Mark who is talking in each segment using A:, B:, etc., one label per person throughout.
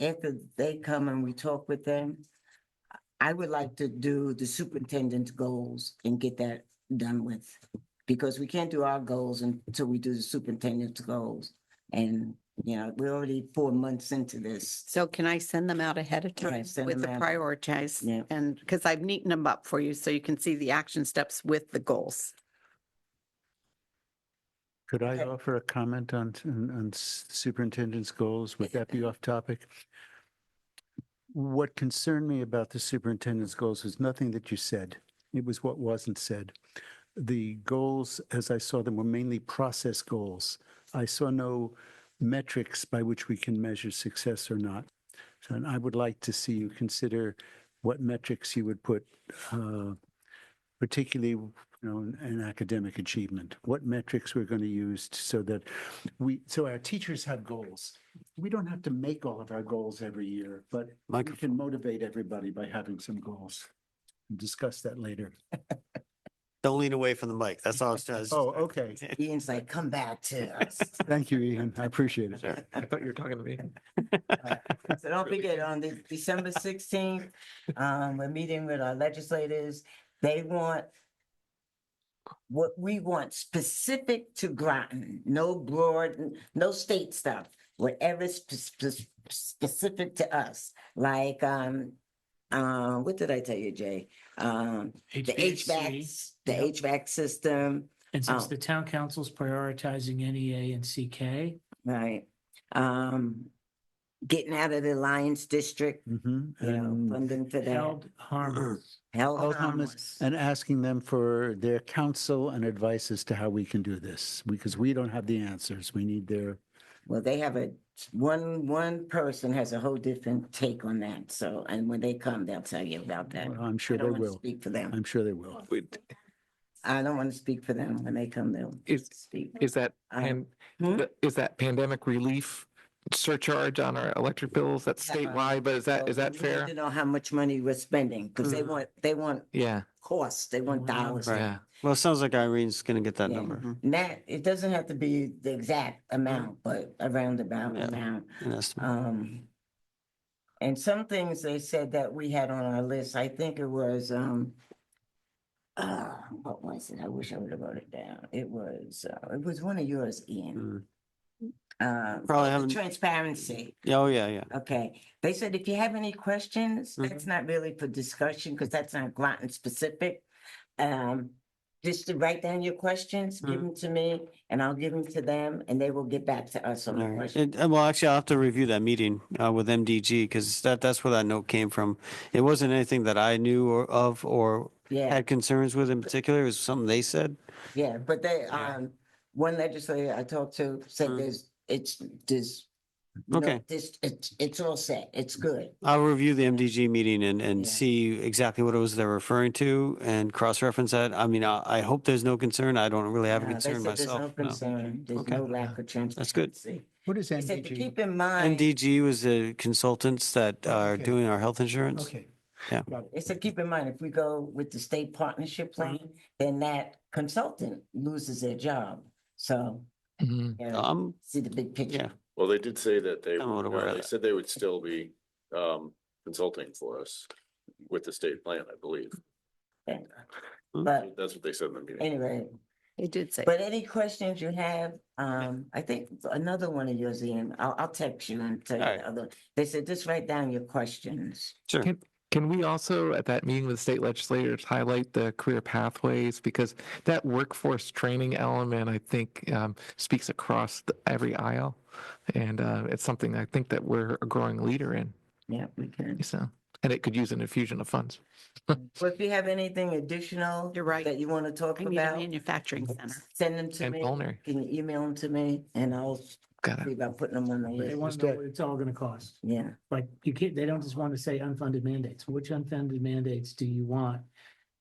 A: after they come and we talk with them, I would like to do the superintendent's goals and get that done with. Because we can't do our goals until we do the superintendent's goals. And, you know, we're already four months into this.
B: So can I send them out ahead of
A: Yeah,
B: time
A: send
B: with the
A: them out. Yeah.
B: prioritize? And, because I've neatened them up for you, so you can see the action steps with the goals.
C: Could I
A: Okay.
C: offer a comment on, on on superintendent's goals? Would that be off topic? What concerned me about the superintendent's goals was nothing that you said. It was what wasn't said. The goals, as I saw them, were mainly process goals. I saw no metrics by which we can measure success or not. So, And I would like to see you consider what metrics you would put, uh, particularly you know, an- an academic achievement, what metrics we're going to use t- so that we, so our teachers have goals. We don't have to make all of our goals every year, but we can motivate everybody by having some goals. We'll Discuss that later.
D: Don't lean away from the mic. That's all it says.
C: Oh, okay.
A: Ian's like, come back to us.
C: Thank you, Ian. I appreciate it.
D: I thought you were talking to me.
A: So don't forget, on the December sixteenth, um, we're meeting with our legislators. They want what we want specific to Groton, no broad, no state stuff, whatever's spe- spe- specific to us. Like, um, uh, what did I tell you, Jay? Um, the HVACs, the
E: Yep.
A: HVAC system,
E: And since
A: Oh.
E: the town council's prioritizing NEA and CK,
A: right? Um, getting out of the Alliance District,
C: Mhm.
A: you know,
C: And-
A: funding for that.
E: held harmless.
A: Held
C: Held harmless.
A: harmless.
C: And asking them for their counsel and advice as to how we can do this, because we don't have the answers. We need their,
A: Well, they have a, one, one person has a whole different take on that, so, and when they come, they'll tell you about that.
C: I'm sure
A: I
C: they
A: don't want to
C: will.
A: speak for them.
C: I'm sure they will.
F: Wait,
A: I don't want to speak for them. When they come, they'll
F: Is,
A: speak.
F: is that,
A: Um,
F: pan-
A: hmm?
F: th- is that pandemic relief surcharge on our electric bills? That's
A: Yeah, uh,
F: statewide, but is that, is
A: So
F: that
A: we need
F: fair? Mm.
A: To know how much money we're spending, because they
E: Mhm.
A: want, they want
F: Yeah,
A: costs, they want
E: Wow.
A: dollars.
E: Right.
F: yeah.
D: Well, it sounds like Irene's going to get that
A: Yeah. Mm-hmm.
D: number,
A: And that, it doesn't have to be the exact amount, but a roundabout
D: Yeah.
A: amount.
D: an estimate.
A: Um, and some things they said that we had on our list, I think it was, um, uh, what was it? I wish I would have wrote it down. It was, uh, it was one of yours, Ian.
D: Mm.
A: Uh,
D: Probably
A: the
D: haven't,
A: transparency.
D: Yeah, oh, yeah, yeah.
A: Okay. They said if you have any questions,
D: Mhm.
A: that's not really for discussion because that's not Groton specific. Um, just to write down your questions, give
D: Mhm.
A: them to me and I'll give them to them and they will get back to us on the
D: All right.
A: question.
D: It- uh, Well, actually, I'll have to review that meeting uh, with MDG because that, that's where that note came from. It wasn't anything that I knew or of or
A: Yeah.
D: had concerns with in particular. It was something they said.
A: Yeah, but they,
D: Yeah.
A: um, one legislator I talked to said
D: Mm.
A: there's, it's, there's. no-
D: Okay.
A: This, it's, it's all set, it's good.
D: I'll review the MDG meeting and, and
A: Yeah.
D: see exactly what it was they're referring to and cross-reference that. I mean, I, I hope there's no concern. I don't really have a
A: Uh, they
D: concern
A: said there's no
D: myself. no.
A: concern, There's
D: Okay.
A: no lack of
D: That's good.
A: transparency.
C: What is
A: They said to
C: MDG?
A: keep in mind,
D: MDG was the consultants that
C: Oh,
D: are
C: okay.
D: doing our health insurance.
C: Okay.
D: Yeah.
C: Got it.
A: they said keep in mind, if we go with the state
D: Mm.
A: partnership plan, then that consultant loses their job. So,
F: Mhm.
A: you know,
D: Um,
A: see the big
D: yeah,
A: picture.
G: Well, they did say that they,
D: I'm not aware of
G: no, they
D: that.
G: said they would still be um consulting for us with the state plan, I believe.
A: But
G: That's what they said in the meeting.
A: anyway,
B: It did say.
A: But any questions you have, um, I think another one of yours, Ian, I'll, I'll text you and tell you
D: Alright.
A: the other. They said, just write down your questions.
D: sure.
F: Can- Can we also, at that meeting with state legislators, highlight the career pathways? Because that workforce training element, I think, um, speaks across the- every aisle. And uh, it's something I think that we're a growing leader in,
A: Yeah, we can.
F: so, and it could use an infusion of funds.
A: Well, if you have anything additional
B: You're right.
A: that you want to talk
B: I need a
A: about,
B: manufacturing center.
A: send them to
F: And
A: me.
F: culinary.
A: Can you email them to me and I'll
F: Got it.
A: see about putting them on the
E: They
A: list.
E: want
C: Just
E: to know
C: that-
E: what it's all going to cost.
A: Yeah,
E: Like you can't, they don't just want to say unfunded mandates. Which unfunded mandates do you want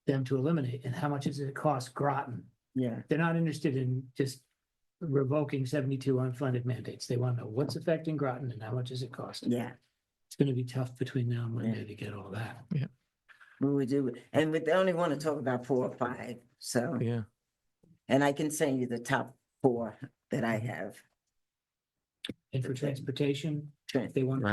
E: them to eliminate? And how much does it cost Groton?
A: yeah.
E: They're not interested in just revoking seventy-two unfunded mandates. They want to know what's affecting Groton and how much does it cost?
A: Yeah,
E: It's going to be tough between now and
A: Yeah.
E: Monday to get all that.
A: we would do, it. and we they only want to talk about four or five, so,
F: Yeah.
A: and I can send you the top four that I have.
E: And for transportation, if they want to